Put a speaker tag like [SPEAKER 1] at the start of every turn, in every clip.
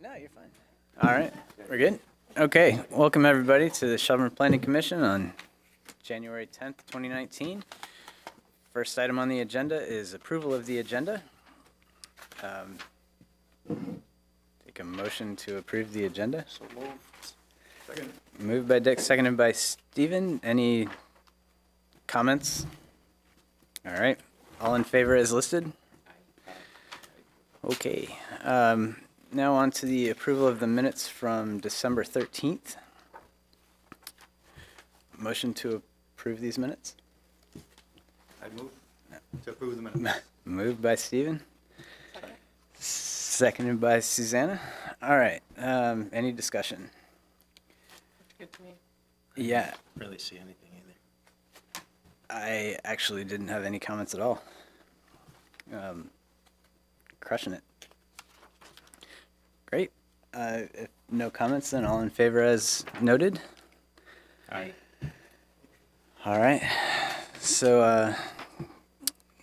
[SPEAKER 1] No, you're fine. All right, we're good? Okay, welcome everybody to the Shelburne Planning Commission on January 10th, 2019. First item on the agenda is approval of the agenda. Um, Take a motion to approve the agenda.
[SPEAKER 2] So moved. Second.
[SPEAKER 1] Moved by Dick, seconded by Steven. Any comments? All right, all in favor as listed? Okay, um, now on to the approval of the minutes from December thirteenth. Motion to approve these minutes?
[SPEAKER 2] I move to approve the minutes.
[SPEAKER 1] Moved by Steven. Seconded by Susanna. All right, um, any discussion?
[SPEAKER 3] Good to me.
[SPEAKER 1] Yeah,
[SPEAKER 4] really see anything either.
[SPEAKER 1] I actually didn't have any comments at all. Um, crushing it. Great. Uh, if no comments, then all in favor as noted.
[SPEAKER 3] Aye.
[SPEAKER 1] All right. So, uh,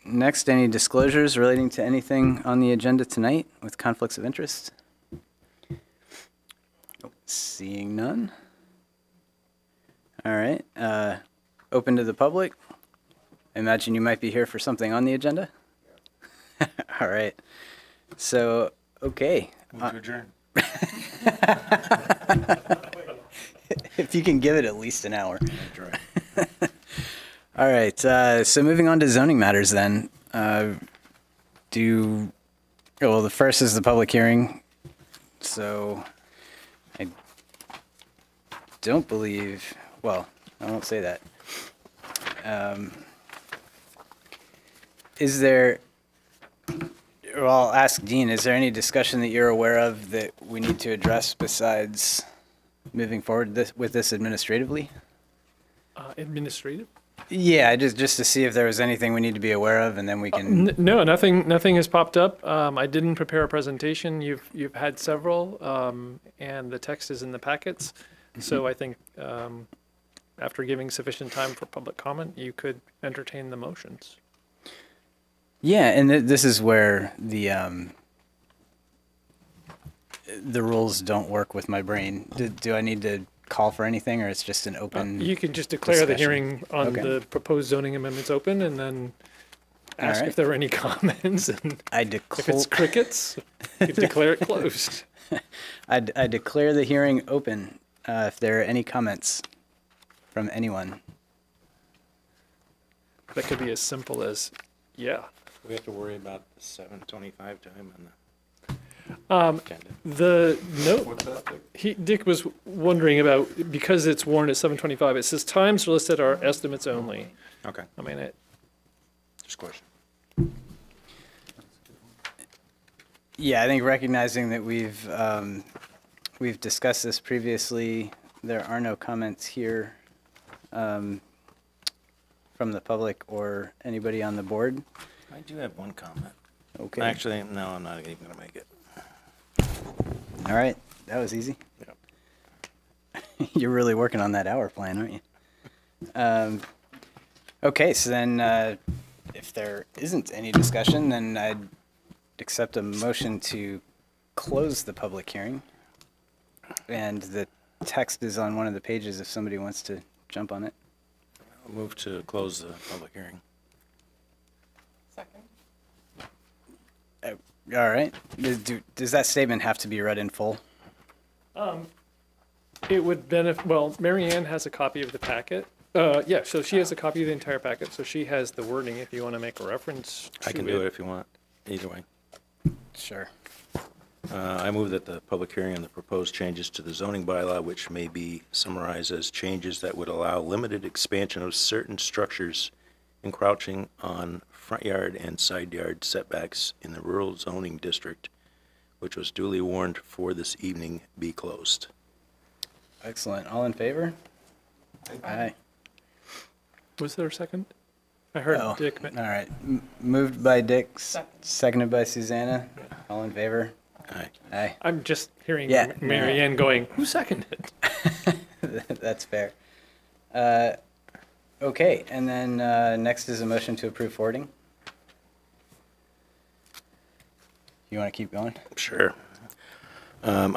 [SPEAKER 1] next, any disclosures relating to anything on the agenda tonight with conflicts of interest? Seeing none. All right. Uh, open to the public. I imagine you might be here for something on the agenda. All right. So, okay.
[SPEAKER 4] Move to adjourn.
[SPEAKER 1] if you can give it at least an hour. All right. Uh, so moving on to zoning matters then. Uh, do, oh, well, the first is the public hearing. So I don't believe, well, I won't say that. Um, is there, well, I'll ask Dean, is there any discussion that you're aware of that we need to address besides moving forward this, with this administratively?
[SPEAKER 5] Uh, administrative?
[SPEAKER 1] Yeah, just just to see if there was anything we need to be aware of, and then we can.
[SPEAKER 5] Uh, N- no, nothing. Nothing has popped up. Um, I didn't prepare a presentation. You've you've had several, um, and the text is in the packets.
[SPEAKER 1] Mm-hmm.
[SPEAKER 5] So I think um, after giving sufficient time for public comment, you could entertain the motions.
[SPEAKER 1] Yeah, and th- this is where the um, the rules don't work with my brain. Do, do I need to call for anything, or it's just an open?
[SPEAKER 5] Uh, You can just declare the
[SPEAKER 1] Discussion.
[SPEAKER 5] hearing on
[SPEAKER 1] Okay.
[SPEAKER 5] the proposed zoning amendments open, and then
[SPEAKER 1] All
[SPEAKER 5] ask
[SPEAKER 1] right.
[SPEAKER 5] if there are any comments. And
[SPEAKER 1] I
[SPEAKER 5] if it's
[SPEAKER 1] declare
[SPEAKER 5] crickets, you declare it closed.
[SPEAKER 1] I, d- I declare the hearing open. Uh, if there are any comments from anyone,
[SPEAKER 5] That could be as simple as, yeah.
[SPEAKER 4] We have to worry about the seven twenty-five time on
[SPEAKER 5] Um,
[SPEAKER 4] the agenda.
[SPEAKER 5] The note
[SPEAKER 2] What's that?
[SPEAKER 5] He, Dick was wondering about, because it's warned at seven twenty-five, it says times listed are estimates only.
[SPEAKER 4] Okay,
[SPEAKER 5] I mean, it,
[SPEAKER 4] just question.
[SPEAKER 1] yeah, I think recognizing that we've um, we've discussed this previously, there are no comments here um, from the public or anybody on the board.
[SPEAKER 4] I do have one comment.
[SPEAKER 1] Okay.
[SPEAKER 4] Actually, no, I'm not even gonna make it.
[SPEAKER 1] All right. That was easy.
[SPEAKER 4] Yep.
[SPEAKER 1] You're really working on that hour plan, aren't you? Um, okay. So then, uh, if there isn't any discussion, then I'd accept a motion to close the public hearing. And the text is on one of the pages if somebody wants to jump on it.
[SPEAKER 4] I'll Move to close the public hearing.
[SPEAKER 3] Second.
[SPEAKER 1] All right. Does, do, does that statement have to be read in full?
[SPEAKER 5] it would benefit, well, Mary Ann has a copy of the packet. Uh, yeah, so she has a copy of the entire packet, so she has the wording if you want to make a reference
[SPEAKER 4] I can
[SPEAKER 5] to
[SPEAKER 4] do it if you want, either way.
[SPEAKER 1] Sure.
[SPEAKER 4] Uh, I move that the public hearing on the proposed changes to the zoning bylaw, which may be summarized as changes that would allow limited expansion of certain structures encroaching on front yard and side yard setbacks in the rural zoning district, which was duly warned for this evening, be closed.
[SPEAKER 1] Excellent. All in favor? Aye.
[SPEAKER 5] Was there a second? I heard
[SPEAKER 1] Oh,
[SPEAKER 5] Dick, ma-
[SPEAKER 1] All right. M- Moved by Dick, s-
[SPEAKER 3] Second.
[SPEAKER 1] seconded by Susanna. All in favor?
[SPEAKER 4] Aye.
[SPEAKER 1] Aye.
[SPEAKER 5] I'm just hearing
[SPEAKER 1] Yeah.
[SPEAKER 5] Mary Ann going, who seconded?
[SPEAKER 1] That's fair. Uh, Okay, and then uh, next is a motion to approve forwarding. You want to keep going?
[SPEAKER 4] Sure. Um,